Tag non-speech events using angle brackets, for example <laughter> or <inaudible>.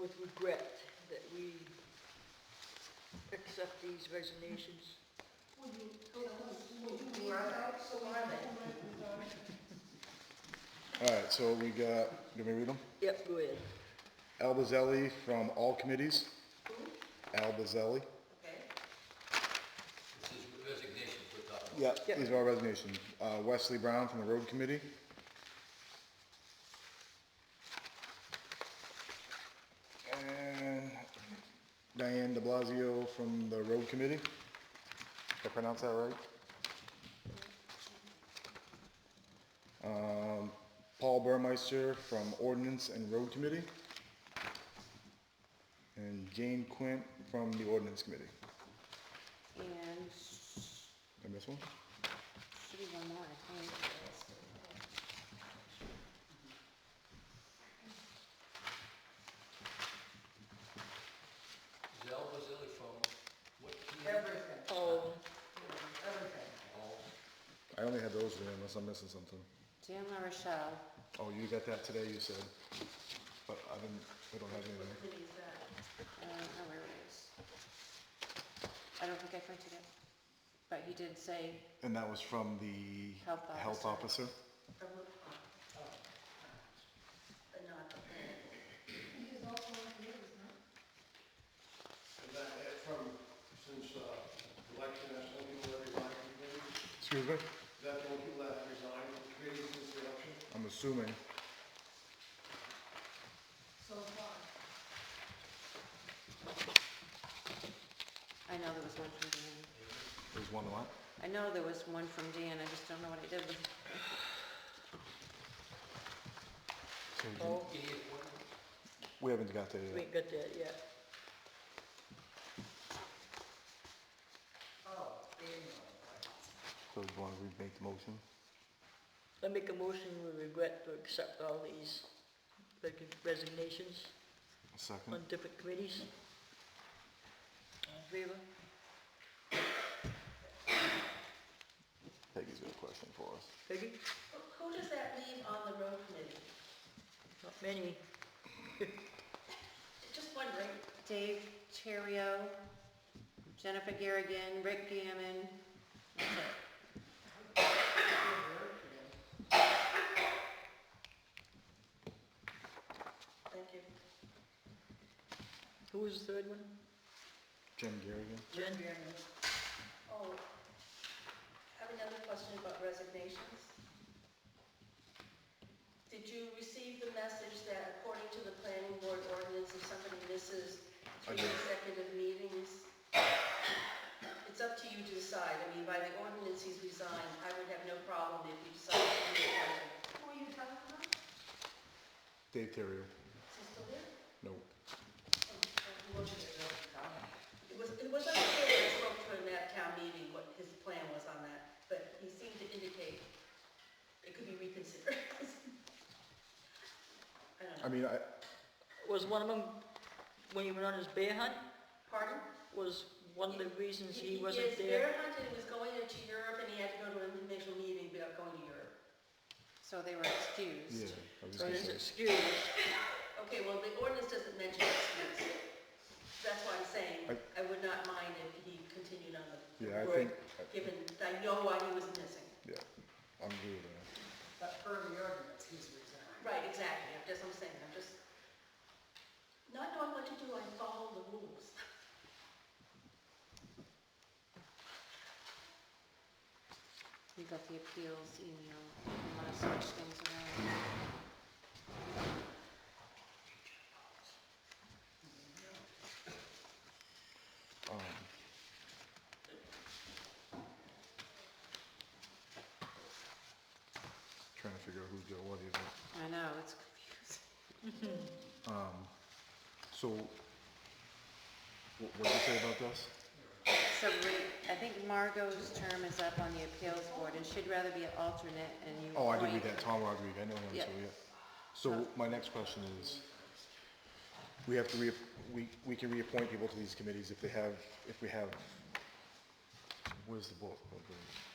with regret that we accept these resignations. All right, so we got, let me read them. Yep, go ahead. Al Bazzelli from all committees. Al Bazzelli. This is resignation for Doug. Yeah, Yep. these are all resignations. Uh, Wesley Brown from the road committee. And Diane de Blasio from the road committee. Did I pronounce that right? Um, Paul Burmeister from ordinance and road committee. And Jane Quint from the ordinance committee. And Did I miss one? should be one more, I think. Zell Bazilli from what team? Everything, Um, everything. Oh, I only had those there unless I'm missing something. Dan La Rochelle. Oh, you got that today, you said, but I didn't, we don't have anything. I don't know Uh, oh, where it is. I don't think I printed it, but he did say, And that was from the Health health officer. officer? And that, that from, since, uh, election, that's the only people that resigned from committees? Excuse me? Is that the only people that have resigned from committees since the election? I'm assuming. I know there was one from Dan. There's one what? I know there was one from Dan, I just don't know what I did with it. So we didn't- oh, Any appointment? We haven't got that we yet. ain't got that yet. So do you want to remake the motion? I make a motion with regret to accept all these reg- resignations A on Second? different committees. All in favor? Peggy's got a question for us. Peggy? Who does that leave on the road committee? Not many. Just wondering. Dave Terrio, Jennifer Garrigan, Rick Gammon. That's it. Thank you. Who was the third one? Jim Garrigan? Jen? Oh, I have another question about resignations. Did you receive the message that according to the planning board ordinance, if somebody misses I three did. consecutive meetings, it's up to you to decide. I mean, by the ordinance, he's resigned. I would have no problem if you decided to resign him. Who are you talking about? Dave Terrio? Is he still there? No. It was, it was unclear when I spoke to him at town meeting what his plan was on that, but he seemed to indicate it could be reconsidered. <laughs> I don't I know. mean, I, Was one of them, when he went on his bear hunt, Pardon? was one of the reasons he is wasn't there? bear hunting, he was going into Europe and he had to go to an international meeting without going to Europe. So they were excused. yeah, I was So gonna his say, excuse, Okay, well, the ordinance doesn't mention excuse. That's why I'm saying I would not mind if he continued on the, yeah, I Right. think, I- given, I know why he was missing. yeah, I'm good with that. But per the ordinance, he's resigned. Right, exactly, I'm just, I'm saying, I'm just, not knowing what to do, I follow the rules. You got the appeals email, if you wanna switch things around. Um, Trying to figure out who Joe was here. I know, it's confusing. Um, so, what, what did you say about this? So we, I think Margot's term is up on the appeals board, and she'd rather be an alternate, and you Oh, I did read appoint- that, Tom Rodriguez, I know him, Yeah. so yeah. So my next question is, we have to re, we, we can reappoint people to these committees if they have, if we have, where's the book? Okay.